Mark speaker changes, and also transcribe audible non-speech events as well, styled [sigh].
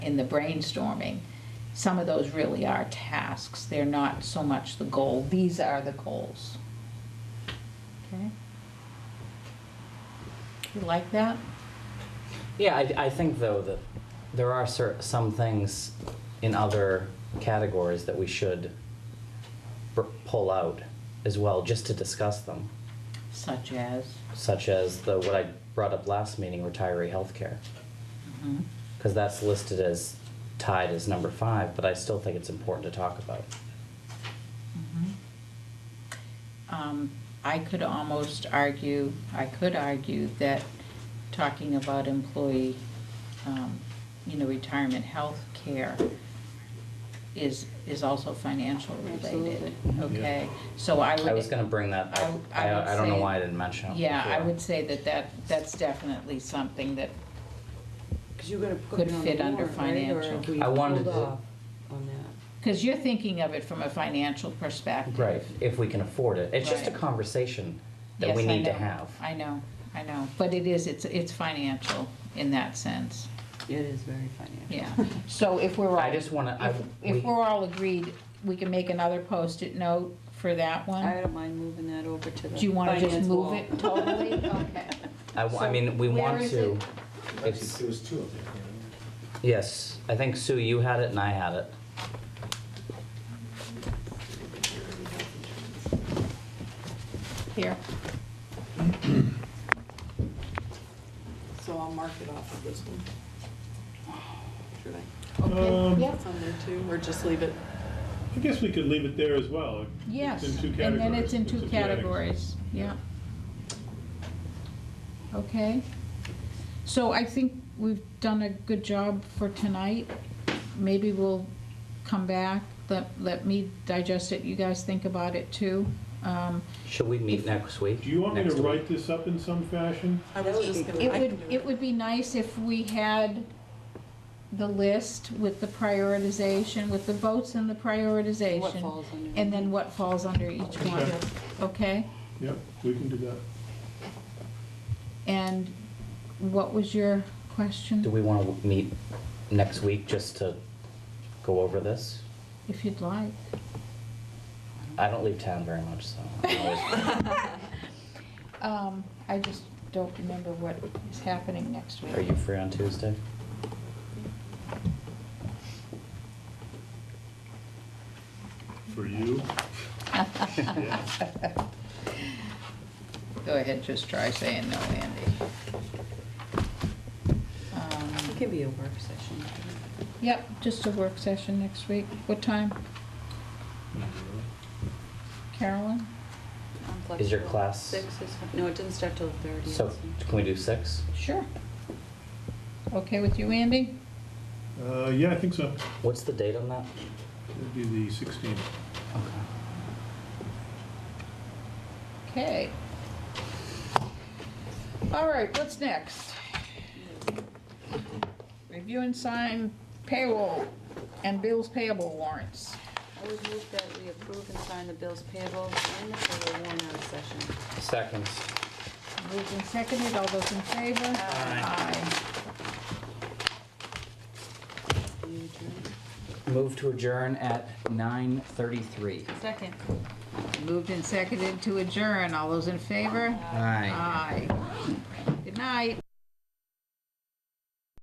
Speaker 1: in the brainstorming, some of those really are tasks. They're not so much the goal. These are the goals. Okay? You like that?
Speaker 2: Yeah, I, I think though that there are cer- some things in other categories that we should br- pull out as well, just to discuss them,
Speaker 1: Such as,
Speaker 2: such as the what I brought up last meeting, retiree healthcare,
Speaker 1: mhm.
Speaker 2: because that's listed as tied as number five, but I still think it's important to talk about.
Speaker 1: Um, I could almost argue, I could argue that talking about employee, um, you know, retirement health care is, is also financial related,
Speaker 2: Absolutely.
Speaker 1: okay? So I would.
Speaker 2: I was going to bring that up.
Speaker 1: I- I
Speaker 2: I,
Speaker 1: would
Speaker 2: I, don't know
Speaker 1: say-
Speaker 2: why I didn't mention it.
Speaker 1: Yeah, I
Speaker 2: before.
Speaker 1: would say that that, that's definitely something that,
Speaker 3: Because you're gonna put
Speaker 1: Could
Speaker 3: it on
Speaker 1: fit
Speaker 3: the
Speaker 1: under
Speaker 3: warrant, right? Or
Speaker 1: financial.
Speaker 3: have we
Speaker 2: I wanted
Speaker 3: pulled
Speaker 2: to-
Speaker 3: off On that.
Speaker 1: because you're thinking of it from a financial perspective.
Speaker 2: Right, if we can afford it. It's just a
Speaker 1: Right.
Speaker 2: conversation that
Speaker 1: Yes,
Speaker 2: we
Speaker 1: I
Speaker 2: need to
Speaker 1: know.
Speaker 2: have.
Speaker 1: I know, I know, but it is, it's, it's financial in that sense,
Speaker 3: It is very financial. [laughs]
Speaker 1: yeah. So if we're all.
Speaker 2: I just want to. I,
Speaker 1: If,
Speaker 2: we-
Speaker 1: if we're all agreed, we can make another post-it note for that
Speaker 3: I
Speaker 1: one?
Speaker 3: don't mind moving that over to the.
Speaker 1: Do you wanna just
Speaker 3: finance
Speaker 1: move
Speaker 3: wall.
Speaker 1: it
Speaker 3: [laughs]
Speaker 1: totally? Okay.
Speaker 2: I, w- I
Speaker 1: So
Speaker 2: mean, we
Speaker 1: where
Speaker 2: want
Speaker 1: is
Speaker 2: to.
Speaker 1: it?
Speaker 4: Actually,
Speaker 2: It's-
Speaker 4: there was two of them. yeah.
Speaker 2: Yes, I think Sue, you had it and I had it.
Speaker 1: Here,
Speaker 3: So I'll mark it off of this one. Should I?
Speaker 1: okay,
Speaker 5: Um,
Speaker 1: yeah,
Speaker 3: It's on there too, or just leave it?
Speaker 5: I guess we could leave it there as well.
Speaker 1: yes,
Speaker 5: It's in two
Speaker 1: and then it's in two categories,
Speaker 5: categories.
Speaker 1: yeah. Okay, so I think we've done a good job for tonight. Maybe we'll come back, let, let me digest it, you guys think about it too. Um,
Speaker 2: Should we meet next week?
Speaker 5: Do you want me to
Speaker 2: Next week?
Speaker 5: write this up in some fashion?
Speaker 3: I was just gonna.
Speaker 1: It
Speaker 3: I
Speaker 1: would,
Speaker 3: can do
Speaker 1: it would be nice if we had the list with the prioritization, with the votes and the
Speaker 3: What
Speaker 1: prioritization,
Speaker 3: falls under.
Speaker 1: and then what falls under each one,
Speaker 5: Okay.
Speaker 1: okay?
Speaker 5: Yep, we can do that.
Speaker 1: And what was your
Speaker 2: Do
Speaker 1: question,
Speaker 2: we want to meet next week just to go over this?
Speaker 1: if you'd like?
Speaker 2: I don't leave town very much, so. I'm always-
Speaker 1: Um, I just don't remember what is happening next
Speaker 2: Are
Speaker 1: week.
Speaker 2: you free on Tuesday?
Speaker 5: For you? Yeah.
Speaker 1: [laughs] Go ahead, just try saying no, Andy.
Speaker 3: It
Speaker 1: Um,
Speaker 3: can be a work session.
Speaker 1: Yep, just a work session next week. What time, Carolyn?
Speaker 3: I'm
Speaker 2: Is your
Speaker 3: flexible.
Speaker 2: class-
Speaker 3: Six is, fi- no, it doesn't start till thirty.
Speaker 2: So can we do six?
Speaker 1: Sure. Okay with you, Andy?
Speaker 5: Uh, yeah, I think so.
Speaker 2: What's the date on that?
Speaker 5: It'd be the 16th.
Speaker 1: Okay.
Speaker 2: Okay.
Speaker 1: All right, what's next? Review and sign payroll and bills payable warrants.
Speaker 3: I would move that we approve and sign the bills payable and the payroll warrant out of session.
Speaker 2: Seconds.
Speaker 1: Moved and seconded, all those in favor? Aye.
Speaker 3: You adjourn?
Speaker 2: Move to adjourn at 9:33.
Speaker 3: Second.
Speaker 1: Moved and seconded to adjourn, all those in favor?
Speaker 2: Aye.
Speaker 1: Aye. Good night.